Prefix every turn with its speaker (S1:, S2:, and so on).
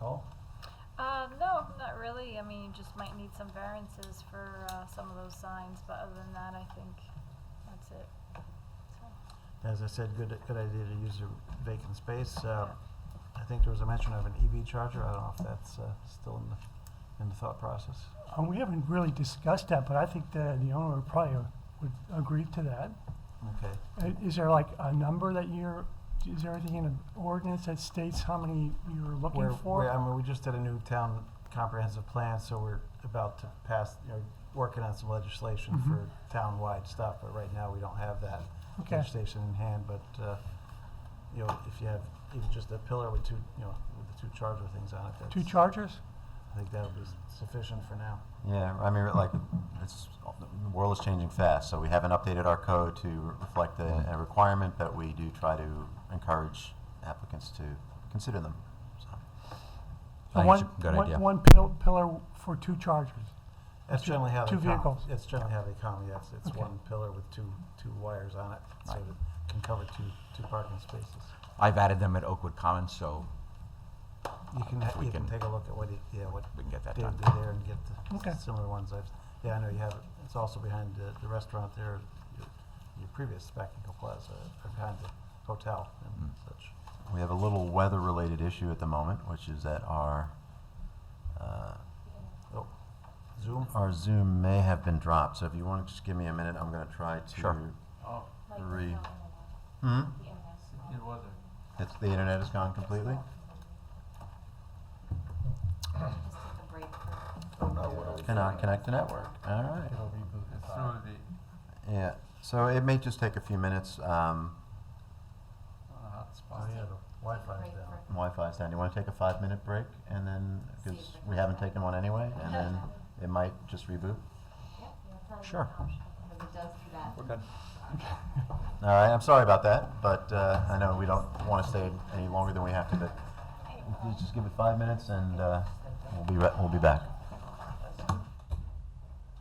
S1: all?
S2: Uh, no, not really. I mean, you just might need some variances for uh, some of those signs, but other than that, I think that's it. So,
S1: As I said, good, good idea to use the vacant space. Uh, I think there was a mention of an EV charger. I don't know if that's uh, still in the, in the thought process.
S3: Uh, we haven't really discussed that, but I think the, the owner would probably would agree to that.
S1: Okay.
S3: Uh, Is there like a number that you're, is there anything in an ordinance that states how many you're
S1: We're-
S3: looking
S1: we're- I
S3: for?
S1: mean, we just did a new town comprehensive plan, so we're about to pass, you know, working on some legislation
S3: Mhm.
S1: for town-wide stuff, but right now we don't have that
S3: Okay.
S1: legislation in hand, but, uh, you know, if you have even just a pillar with two, you know, with the two charger things on it, that's.
S3: Two chargers?
S1: I think that'll be sufficient for now.
S4: Yeah, I mean, like, it's, the world is changing fast, so we haven't updated our code to reflect the a requirement, but we do try to encourage applicants to consider them, so.
S3: Uh,
S5: I think
S3: one-
S5: it's a good
S3: one-
S5: idea.
S3: One pill- pillar for two chargers.
S1: That's
S3: Two-
S1: generally how they
S3: two
S1: come.
S3: vehicles.
S1: That's generally how they come, yes. It's
S3: Okay.
S1: one pillar with two, two wires on it, so that it can cover two, two parking spaces.
S5: I've added them at Oakwood Commons, so
S1: You can, ha-
S5: We
S1: you can
S5: can-
S1: take a look at what, he- yeah, what
S5: we can get that
S1: Dave
S5: done.
S1: did there and get the
S3: Okay.
S1: s- similar ones. I've, yeah, I know you have it. It's also behind the, the restaurant there, your, your previous Spectacle Plaza, or behind the hotel and
S5: Mm.
S1: such.
S4: We have a little weather-related issue at the moment, which is that our, uh,
S1: Oh, Zoom?
S4: our Zoom may have been dropped, so if you want to just give me a minute, I'm gonna try to.
S5: Sure.
S6: Oh,
S4: Re- Hmm?
S6: it wasn't.
S4: It's, the internet is gone completely? Cannot connect the network, all right.
S6: It's through the,
S4: Yeah, so it may just take a few minutes, um,
S6: on a
S1: Oh,
S6: hotspot.
S1: yeah, the Wi-Fi's down.
S4: Wi-Fi stand. You want to take a five-minute break, and then because we haven't taken one anyway, and then it might just reboot.
S5: Sure.
S7: Because it does do that.
S5: we're good.
S4: All right, I'm sorry about that, but uh, I know we don't want to stay any longer than we have to, but we'll just give it five minutes, and uh, we'll be re- we'll be back.